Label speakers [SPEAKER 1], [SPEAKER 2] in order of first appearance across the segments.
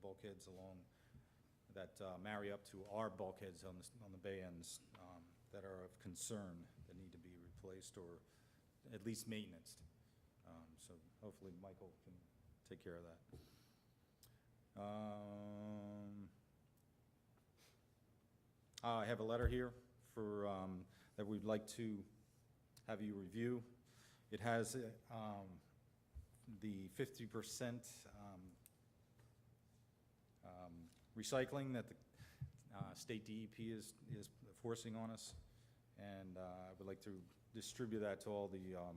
[SPEAKER 1] bulkheads along, that uh, marry up to our bulkheads on the, s- on the bay ends um, that are of concern, that need to be replaced or at least maintenanced. Um, So hopefully Michael can take care of that. Um, uh, I have a letter here for, um, that we'd like to have you review. It has uh, um, the 50% um, um, recycling that the uh, state DEP is is forcing on us, and uh, I would like to distribute that to all the um,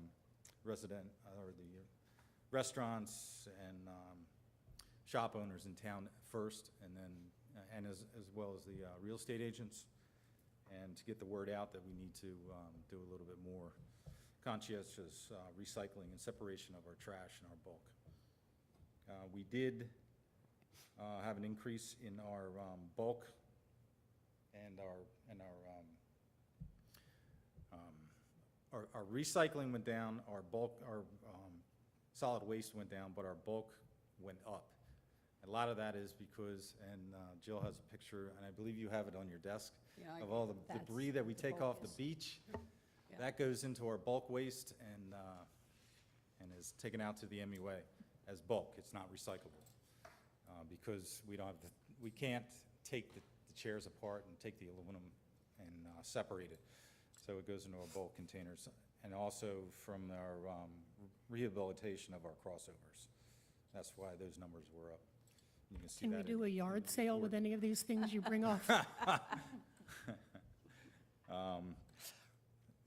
[SPEAKER 1] resident, uh, or the restaurants and um, shop owners in town first, and then, uh, and as as well as the uh, real estate agents, and to get the word out that we need to um, do a little bit more conscientious uh, recycling and separation of our trash and our bulk. Uh, We did uh, have an increase in our um, bulk and our, and our, um, um, our our recycling went down, our bulk, our um, solid waste went down, but our bulk went up. A lot of that is because, and uh, Jill has a picture, and I believe you have it on your desk,
[SPEAKER 2] Yeah, I-
[SPEAKER 1] of all the
[SPEAKER 2] that's
[SPEAKER 1] debris that we
[SPEAKER 2] the
[SPEAKER 1] take
[SPEAKER 2] bulk
[SPEAKER 1] off the
[SPEAKER 2] is-
[SPEAKER 1] beach.
[SPEAKER 2] Yeah.
[SPEAKER 1] That goes into our bulk waste and, uh, and is taken out to the MUA as bulk. It's not recyclable. uh, Because we don't have, the we can't take the the chairs apart and take the aluminum and uh, separate it. So it goes into our bulk containers and also from our um, rehabilitation of our crossovers. That's why those numbers were up. You can see
[SPEAKER 3] Can we
[SPEAKER 1] that
[SPEAKER 3] do a
[SPEAKER 1] in-
[SPEAKER 3] yard sale with any of these things you bring off?
[SPEAKER 1] um,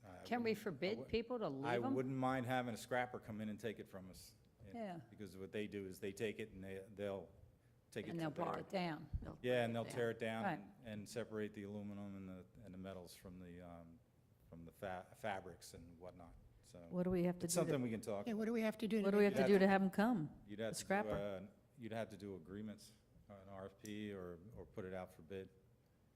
[SPEAKER 1] uh,
[SPEAKER 2] Can we forbid people to
[SPEAKER 1] I
[SPEAKER 2] leave them?
[SPEAKER 1] wouldn't mind having a scrapper come in and take it from us.
[SPEAKER 2] Yeah.
[SPEAKER 1] Because what they do is they take it and they, they'll take it.
[SPEAKER 2] And
[SPEAKER 1] to
[SPEAKER 2] they'll
[SPEAKER 1] their-
[SPEAKER 2] break it down.
[SPEAKER 1] Yeah, and they'll tear it
[SPEAKER 2] Right.
[SPEAKER 1] down and separate the aluminum and the, and the metals from the, um, from the fa- fabrics and whatnot, so.
[SPEAKER 2] What do we have to
[SPEAKER 1] It's
[SPEAKER 2] do?
[SPEAKER 1] something
[SPEAKER 2] to-
[SPEAKER 1] we can talk.
[SPEAKER 3] Yeah, what do we have to do? to
[SPEAKER 2] What do we
[SPEAKER 3] make-
[SPEAKER 2] have to do to have them come?
[SPEAKER 1] You'd have
[SPEAKER 2] A
[SPEAKER 1] to do,
[SPEAKER 2] scrapper.
[SPEAKER 1] uh, You'd have to do agreements, an RFP or, or put it out for bid.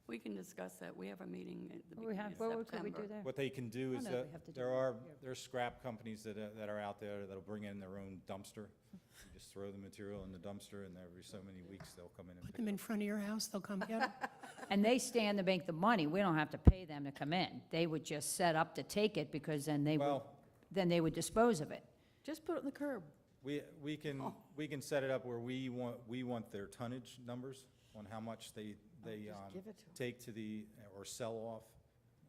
[SPEAKER 4] We can discuss that. We have a meeting at the
[SPEAKER 2] What we
[SPEAKER 4] beginning of
[SPEAKER 2] have, what could we do
[SPEAKER 4] September.
[SPEAKER 2] there?
[SPEAKER 1] What they can do
[SPEAKER 2] I
[SPEAKER 1] is
[SPEAKER 2] know we have to
[SPEAKER 1] that
[SPEAKER 2] do
[SPEAKER 1] there
[SPEAKER 2] it.
[SPEAKER 1] are, there are scrap companies that are, that are out there that'll bring in their own dumpster. You just throw the material in the dumpster and every so many weeks they'll come in and
[SPEAKER 3] Put
[SPEAKER 1] pick
[SPEAKER 3] them in front of your house, they'll come get them?
[SPEAKER 2] And they stand to make the money, we don't have to pay them to come in. They would just set up to take it, because then they would,
[SPEAKER 1] Well-
[SPEAKER 2] then they would dispose of it.
[SPEAKER 4] Just put it on the curb.
[SPEAKER 1] We, we can, we can set it up where we want, we want their tonnage numbers on how much they, they
[SPEAKER 4] just
[SPEAKER 1] um,
[SPEAKER 4] give it to 'em.
[SPEAKER 1] take to the, or sell off,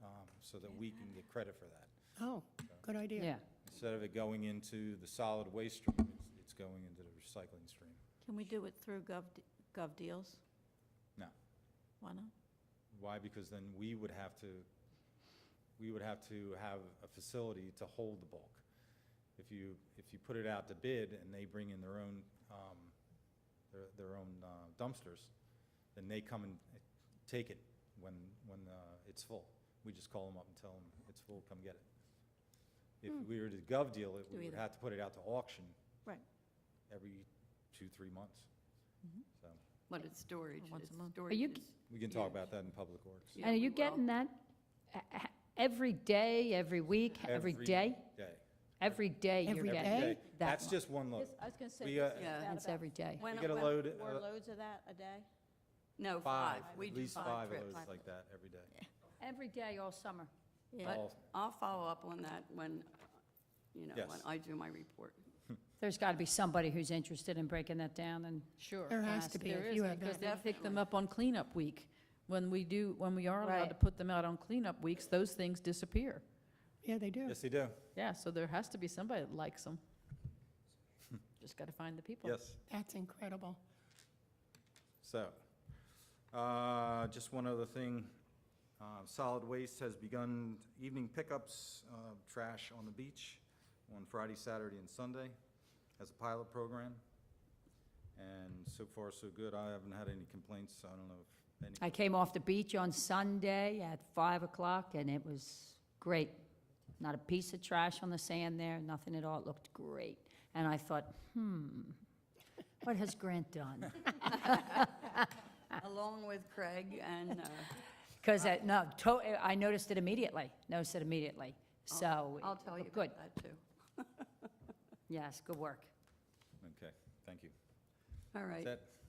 [SPEAKER 1] um, so that we can get credit for that.
[SPEAKER 3] Oh, good idea.
[SPEAKER 2] Yeah.
[SPEAKER 1] Instead of it going into the solid waste stream, it's, it's going into the recycling stream.
[SPEAKER 5] Can we do it through Gov, Gov Deals?
[SPEAKER 1] No.
[SPEAKER 5] Why not?
[SPEAKER 1] Why? Because then we would have to, we would have to have a facility to hold the bulk. If you, if you put it out to bid and they bring in their own, um, their, their own uh, dumpsters, then they come and take it when, when, uh, it's full. We just call them up and tell them, it's full, come get it. If we were to gov deal it,
[SPEAKER 5] Hmm. Do
[SPEAKER 1] we would
[SPEAKER 5] either.
[SPEAKER 1] have to put it out to auction
[SPEAKER 5] Right. Mm-hmm.
[SPEAKER 1] every two, three months. So,
[SPEAKER 4] But it's storage.
[SPEAKER 5] Once a
[SPEAKER 4] It's
[SPEAKER 5] month.
[SPEAKER 4] storage
[SPEAKER 2] you-
[SPEAKER 4] is-
[SPEAKER 1] we can talk about that in public works.
[SPEAKER 4] Yeah,
[SPEAKER 2] And are
[SPEAKER 4] we
[SPEAKER 2] you
[SPEAKER 4] will.
[SPEAKER 2] getting that uh, uh, every day, every week, every day?
[SPEAKER 1] Day.
[SPEAKER 2] Every day you're
[SPEAKER 3] Every
[SPEAKER 2] getting
[SPEAKER 3] day?
[SPEAKER 2] that
[SPEAKER 1] That's
[SPEAKER 2] much.
[SPEAKER 1] just one load.
[SPEAKER 5] Yes, I was gonna say,
[SPEAKER 1] We,
[SPEAKER 5] this
[SPEAKER 1] uh,
[SPEAKER 5] is
[SPEAKER 4] Yeah.
[SPEAKER 5] about
[SPEAKER 2] It's every day.
[SPEAKER 5] When-
[SPEAKER 1] get a
[SPEAKER 5] when-
[SPEAKER 1] load,
[SPEAKER 5] Four
[SPEAKER 1] uh,
[SPEAKER 5] loads of that a day?
[SPEAKER 4] No, five.
[SPEAKER 1] Five,
[SPEAKER 4] We
[SPEAKER 1] at
[SPEAKER 4] do
[SPEAKER 1] least
[SPEAKER 4] five
[SPEAKER 1] five of
[SPEAKER 4] trips.
[SPEAKER 1] those like that every day.
[SPEAKER 2] Every day all summer.
[SPEAKER 5] Yeah.
[SPEAKER 1] All-
[SPEAKER 4] But I'll follow up on that when, you know, when
[SPEAKER 1] Yes.
[SPEAKER 4] I do my report.
[SPEAKER 2] There's got to be somebody who's interested in breaking that down and. Sure.
[SPEAKER 3] There has to be,
[SPEAKER 6] There
[SPEAKER 3] if
[SPEAKER 6] is,
[SPEAKER 3] you have
[SPEAKER 6] because
[SPEAKER 3] that.
[SPEAKER 6] they pick them up on cleanup week. When we do, when we are allowed to
[SPEAKER 2] Right.
[SPEAKER 6] put them out on cleanup weeks, those things disappear.
[SPEAKER 3] Yeah, they do.
[SPEAKER 1] Yes, they do.
[SPEAKER 6] Yeah, so there has to be somebody that likes them. Just got to find the people.
[SPEAKER 1] Yes.
[SPEAKER 3] That's incredible.
[SPEAKER 1] So, uh, just one other thing. Uh, Solid Waste has begun evening pickups, uh, trash on the beach on Friday, Saturday, and Sunday as a pilot program. And so far, so good. I haven't had any complaints. so I don't know if any.
[SPEAKER 2] I came off the beach on Sunday at 5 o'clock, and it was great. Not a piece of trash on the sand there, nothing at all. It looked great. And I thought, hmm, what has Grant done?
[SPEAKER 4] Along with Craig and, uh,
[SPEAKER 2] Because, no, to- I noticed it immediately, noticed it immediately. So.
[SPEAKER 4] I'll tell you
[SPEAKER 2] Good,
[SPEAKER 4] about that too.
[SPEAKER 2] yes, good work.
[SPEAKER 1] Okay, thank you.
[SPEAKER 4] All
[SPEAKER 1] Is
[SPEAKER 4] right.
[SPEAKER 1] that-